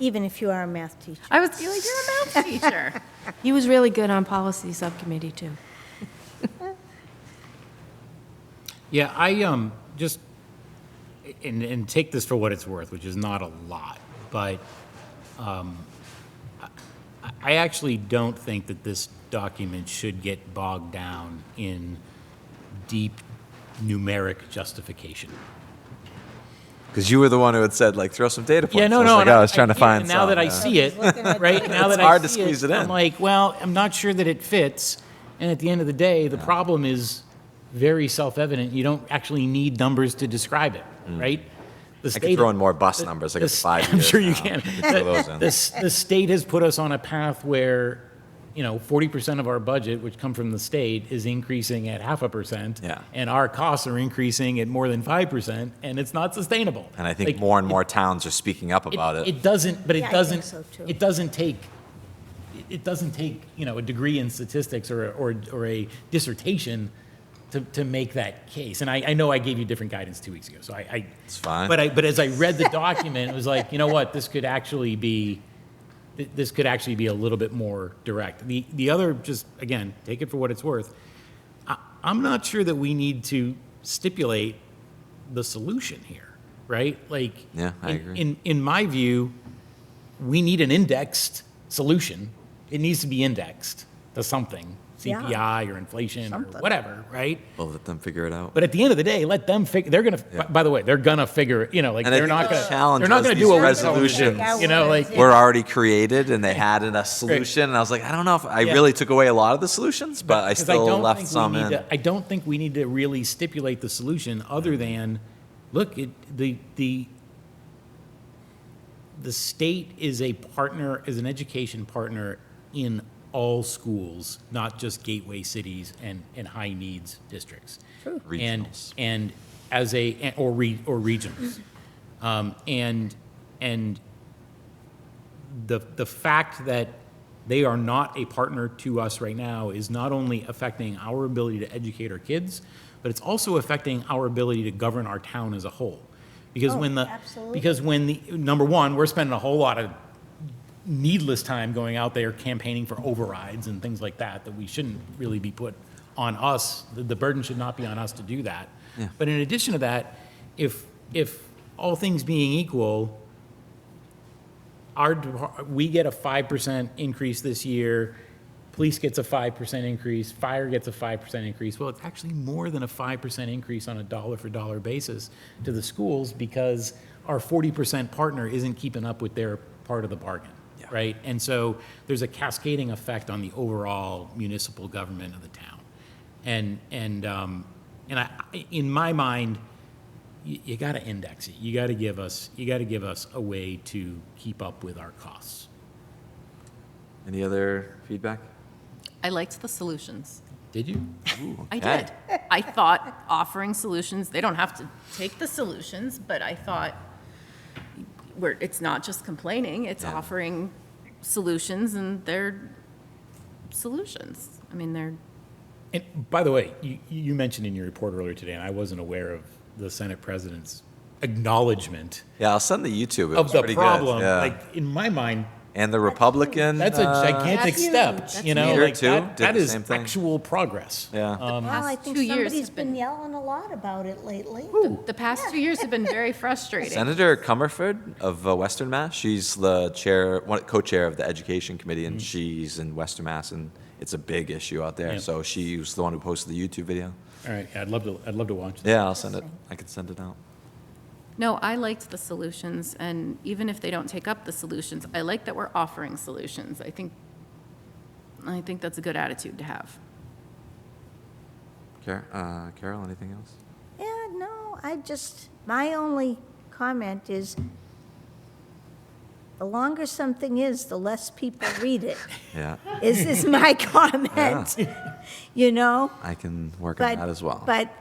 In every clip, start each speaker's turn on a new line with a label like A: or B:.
A: even if you are a math teacher.
B: I was you're like, you're a math teacher. He was really good on policy subcommittee, too.
C: Yeah, I, um, just, and, and take this for what it's worth, which is not a lot, but, um, I, I actually don't think that this document should get bogged down in deep numeric justification.
D: Because you were the one who had said, like, throw some data points.
C: Yeah, no,
D: I was
C: no.
D: like,
C: and
D: oh, I was trying to
C: yeah,
D: find
C: and Now that I
D: some, uh,
C: see it, right? Now
D: It's
C: that I
D: hard to
C: see
D: squeeze it
C: I'm
D: in.
C: like, well, I'm not sure that it fits. And at the end of the day, the problem is very self-evident. You don't actually need numbers to describe it, right? The
D: Mm. I
C: state,
D: could throw in more bus numbers, like
C: the
D: it's
C: s-
D: five
C: I'm
D: years
C: sure you
D: now.
C: can.
D: Throw those in.
C: The, s- the state has put us on a path where, you know, 40% of our budget, which come from the state, is increasing at half a percent.
D: Yeah.
C: And our costs are increasing at more than 5%, and it's not sustainable.
D: And I think
C: Like,
D: more and more towns are speaking up about it.
C: doesn't, but
A: Yeah,
C: it
A: I think
C: doesn't,
A: so, too.
C: it doesn't take, it- it doesn't take, you know, a degree in statistics or, a- or, or a dissertation to, to make that case. And I, I know I gave you different guidance two weeks ago, so I, I.
D: It's fine.
C: But I, but as I read the document, it was like, you know what, this could actually be, th- this could actually be a little bit more direct. The, the other, just, again, take it for what it's worth. I, I'm not sure that we need to stipulate the solution here, right? Like,
D: Yeah, I
C: in-
D: agree.
C: In, in my view, we need an indexed solution. It needs to be indexed to something,
A: Yeah.
C: CPI or inflation or whatever, right?
D: We'll let them figure it out.
C: But at the end of the day, let them figure. They're gonna. By, by the way, they're gonna figure. it, You know, like
D: And I
C: they're
D: think
C: not
D: the
C: gonna.
D: challenge
C: They're not
D: was
C: gonna
D: these
C: do a
D: resolutions.
C: resolution. You know, like
D: We're already created, and they had a solution. And I was like, I don't know if I
C: Yeah.
D: really took away a lot of the solutions, but I
C: 'cause
D: still
C: don't
D: left
C: think we
D: some
C: need
D: in.
C: to- I don't think we need to really stipulate the solution other than, look, it, the the the state is a partner, is an education partner in all schools, not just gateway cities and, and high needs districts. True. And,
D: Regionals.
C: and as a, or re, or regions. Um, and, and the, the fact that they are not a partner to us right now is not only affecting our ability to educate our kids, but it's also affecting our ability to govern our town as a whole. Because when the,
A: absolutely.
C: because when the, number one, we're spending a whole lot of needless time going out there campaigning for overrides and things like that, that we shouldn't really be put on us, the, the burden should not be on us to do that. But in addition to that, if, if all things being equal, our, depar- we get a five percent increase this year, police gets a five percent increase, fire gets a five percent increase. Well, it's actually more than a five percent increase on a dollar for dollar basis to the schools because our forty percent partner isn't keeping up with their part of the bargain, right? And so there's a cascading effect on the overall municipal government of the town. And, and, um, and I, I- in my mind, you, you got to index it. You got to give us, you got to give us a way to keep up with our costs.
D: Any other feedback?
B: I liked the solutions.
C: Did you?
B: I
D: Okay.
B: did. I thought offering solutions, they don't have to take the solutions, but I thought we're, it's not just complaining, it's
D: Yeah.
B: offering solutions and they're solutions. I mean, they're,
C: And by the way, you, you mentioned in your report earlier today, and I wasn't aware of the Senate president's acknowledgement
D: Yeah, I'll send the YouTube. It
C: of
D: was
C: the
D: pretty good,
C: problem.
D: yeah.
C: Like in my mind,
D: and the Republican.
C: that's a
D: uh,
C: gigantic
A: That's
C: step.
A: huge.
C: You know,
D: Peter,
C: like
D: too,
C: that,
D: did
C: that
D: the
C: is
D: same thing.
C: actual progress.
D: yeah.
A: Well, I
B: past
A: think
B: two years
A: somebody's
B: have
A: been
B: been-
A: yelling a lot about it lately.
B: the past two years have been very frustrating.
D: Senator Comerford of uh, Western Mass. She's the chair, one, co-chair of the Education Committee,
A: Mm.
D: and she's in Western Mass, and it's a big issue out there.
C: Yeah.
D: So she was the one who posted the YouTube video.
C: All right, I'd love to. I'd love to watch. That.
D: Yeah, I'll send it. I can send it out.
B: No, I liked the solutions and even if they don't take up the solutions, I like that we're offering solutions. I think, I think that's a good attitude to have.
D: Car- uh, Carol, anything else?
A: Yeah, no, I just, my only comment is, the longer something is, the less people read it,
D: Yeah,
A: is, is my comment, you know?
D: I can work
A: But
D: on that as well.
A: But,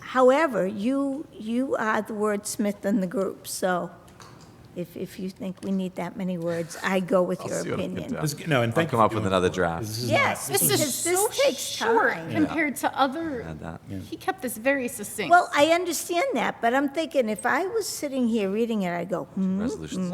A: however, you, you are the wordsmith in the group, so if, if you think we need that many words, I go with your
D: see what I can
A: opinion.
D: do.
C: This- No, and
D: I'll
C: thank you
D: come
C: for
D: up with
C: doing
D: another
C: it.
D: draft.
C: This is not-
A: Yes,
C: this
A: because
C: is-
A: this takes
E: short
A: time.
E: compared to other,
D: Add that.
E: he kept this very succinct.
A: Well, I understand that, but I'm thinking if I was sitting here reading it, I'd go, hmm,
D: Resolutions.